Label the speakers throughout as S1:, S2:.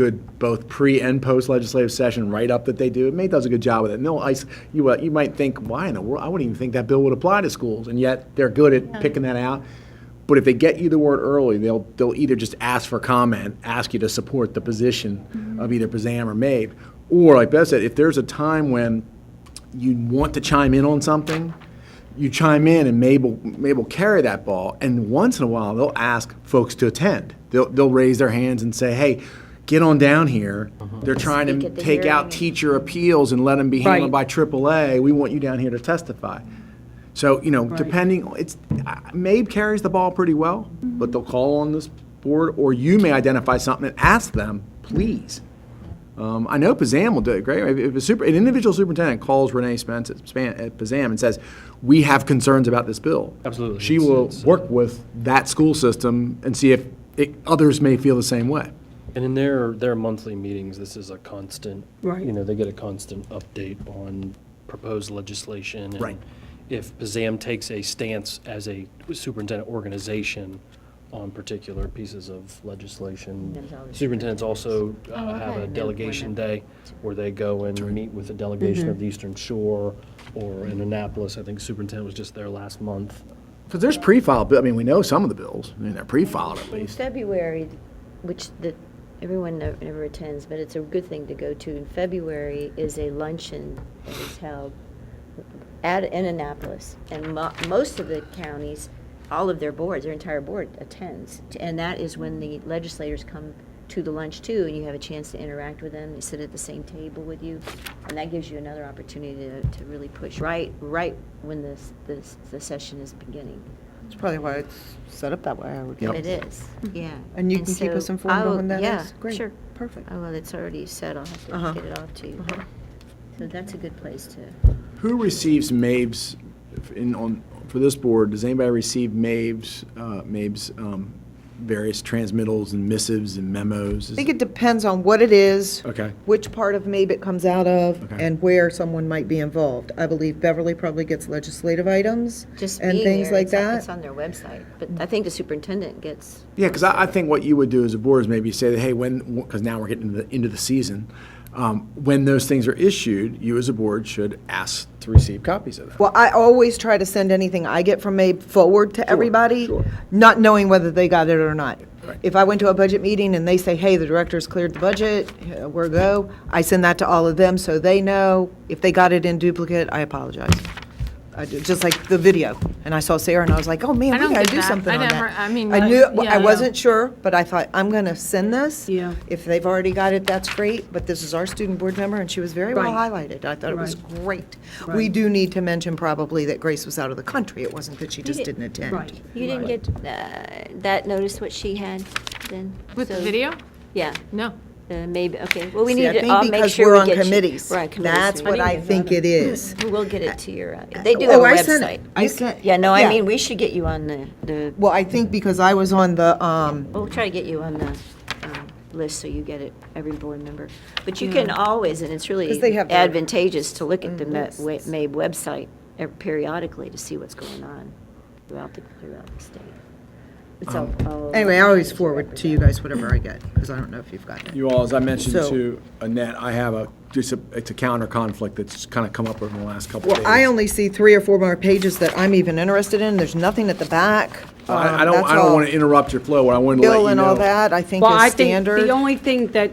S1: good both pre and post legislative session write up that they do. May does a good job with it. And they'll ice you. Uh, you might think, why in the world? I wouldn't even think that bill would apply to schools, and yet they're good at picking that out. But if they get you the word early, they'll they'll either just ask for comment, ask you to support the position of either Bazam or Mabe, or like Bev said, if there's a time when you want to chime in on something, you chime in and Mabel, Mabel carry that ball. And once in a while, they'll ask folks to attend. They'll, they'll raise their hands and say, hey, get on down here. They're trying
S2: Uh-huh. Speak
S1: to
S2: at the
S1: take out
S2: hearing.
S1: teacher appeals and let them be handled by
S3: Right.
S1: AAA. We want you down here to testify. So, you know, depending, it's, uh, Mabe carries the ball pretty well, but they'll call on this board, or you may identify something and ask them, please. Um, I know Pazam will do it great. If- If a super, an individual superintendent calls Renee Spence uh, at, Span, at Pazam and says, "We have concerns about this bill,"
S4: Absolutely.
S1: she
S4: It's-
S1: will
S4: it's, uh,
S1: work with that school system and see if it, others may feel the same way.
S4: And in their, their monthly meetings, this is a constant,
S3: Right.
S4: you know, they get a constant update on proposed legislation. and
S1: Right.
S4: If PZAM takes a stance as a superintendent organization on particular pieces of legislation.
S2: Depends on the
S4: Superintendents also uh, have
S2: okay.
S4: a
S2: Then
S4: delegation
S2: whenever.
S4: day where they go and meet with a delegation of the Eastern Shore or in Annapolis. I think superintendent was just there last month.
S1: Because there's pre-filed, bill- I mean, we know some of the bills, I mean, they're pre-filed at
S2: In
S1: least.
S2: February, which the, everyone never never attends, but it's a good thing to go to. In February is a luncheon that is held at, in Annapolis. And mo- most of the counties, all of their boards, their entire board attends. And that is when the legislators come to the lunch too, and you have a chance to interact with them. They sit at the same table with you. And that gives you another opportunity to, to really push, right, right when this, this, the session is beginning.
S5: That's probably why it's set up that way, I would
S1: Yep.
S2: It is, yeah.
S5: Mm-hmm. And you can keep us
S2: so
S5: informed
S2: I'll-
S5: on when that
S2: yeah,
S5: is? Great.
S2: sure.
S5: Perfect.
S2: Oh, well, it's already set, I'll have
S5: Uh-huh.
S2: to get it off to you. but- So that's a good place to,
S1: Who receives Mabe's, if in, on, for this board, does anybody receive Mabe's, uh, Mabe's, um, various transmittals and missives and memos?
S5: I think it depends on what it is.
S1: Okay.
S5: Which part of MABE it comes out of
S1: Okay.
S5: and where someone might be involved. I believe Beverly probably gets legislative items
S2: just
S5: and
S2: being
S5: things
S2: there,
S5: like
S2: it's on- It's
S5: that.
S2: on their website, but I think the superintendent gets,
S1: Yeah, because I, I think what you would do as a board is maybe say that, hey, when, because now we're getting into the, into the season, um, when those things are issued, you as a board should ask to receive copies of them.
S5: Well, I always try to send anything I get from MABE forward to everybody,
S1: sure.
S5: not knowing whether they got it or not. If I went to a budget meeting and they say, hey, the director's cleared the budget, uh, we're go, I send that to all of them so they know. If they got it in duplicate, I apologize. I do- Just like the video. And I saw Sarah and I was like, oh, man,
S6: I
S5: we
S6: don't
S5: gotta
S6: get
S5: do
S6: that.
S5: something
S6: I
S5: on that.
S6: never- I mean,
S5: I
S6: I-
S5: knew, well,
S6: yeah,
S5: I
S6: no.
S5: wasn't sure, but I thought, I'm gonna send this.
S6: Yeah.
S5: If they've already got it, that's great, but this is our student board member and she was very well highlighted. I thought it was great. We do need to mention probably that Grace was out of the country. It wasn't that she just didn't attend.
S2: you didn't get uh, that notice what she had then?
S6: With the
S2: So-
S6: video?
S2: Yeah,
S6: No.
S2: uh, maybe, okay, well, we
S5: See,
S2: need
S5: I
S2: to,
S5: think
S2: I'll make
S5: because
S2: sure
S5: we're
S2: we
S5: on
S2: get you-
S5: committees,
S2: We're on committees.
S5: That's
S2: so we
S5: what I think it is.
S2: We'll get it to your, uh, they do
S5: Oh,
S2: have a
S5: I sent it.
S2: website.
S5: I sent-
S2: Yeah, no,
S5: yeah.
S2: I mean, we should get you on the, the,
S5: Well, I think because I was on the, um,
S2: We'll try to get you on the um, list so you get it, every board member. But you can always, and it's
S5: 'Cause they
S2: really
S5: have their- Mm-hmm.
S2: advantageous to look at the Ma- wa- MAB website e- periodically to see what's going on throughout the, throughout the state. It's all- all-
S5: anyway, I always forward to you guys whatever I get, because I don't know if you've got it.
S1: You all, as I mentioned
S5: So-
S1: to Annette, I have a, just a, it's a counter conflict that's kind of come up over the last couple of
S5: Well,
S1: days.
S5: I only see three or four more pages that I'm even interested in. There's nothing at the back.
S1: Well, I
S5: Um,
S1: I don't,
S5: that's
S1: I
S5: all.
S1: don't want to interrupt your flow, I wanted to let you know.
S5: Bill and all that, I think
S7: Well, I
S5: is
S7: think
S5: standard.
S7: the only thing that,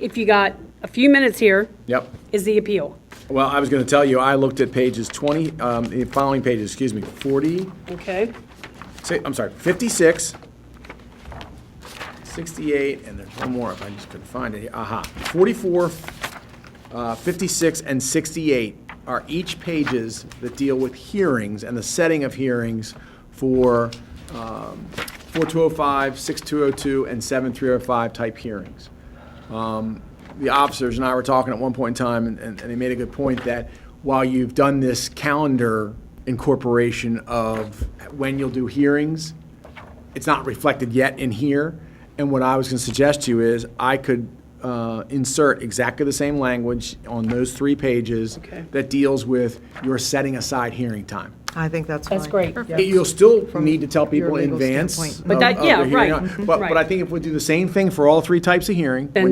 S7: if you got a few minutes here,
S1: Yep.
S7: is the appeal.
S1: Well, I was going to tell you, I looked at pages 20, um, the following pages, excuse me, 40,
S7: Okay.
S1: si- I'm sorry, 56, 68, and there's one more if I just couldn't find it. Aha. 44, uh, 56, and 68 are each pages that deal with hearings and the setting of hearings for um, 4205, 6202, and 7305 type hearings the officers and I were talking at one point in time, and, and they made a good point that while you've done this calendar incorporation of when you'll do hearings, it's not reflected yet in here. And what I was going to suggest to you is I could uh, insert exactly the same language on those three pages that deals with your setting aside hearing time.
S5: I think that's fine.
S7: That's great.
S1: You'll still need to tell people in
S5: legal
S1: advance.
S5: standpoint.
S7: But
S1: of-
S7: that-
S1: of
S7: yeah,
S1: the hearing.
S7: right, mhm,
S1: But, but I
S7: right.
S1: think if we do the same thing for all three types of hearing,
S7: Then
S1: when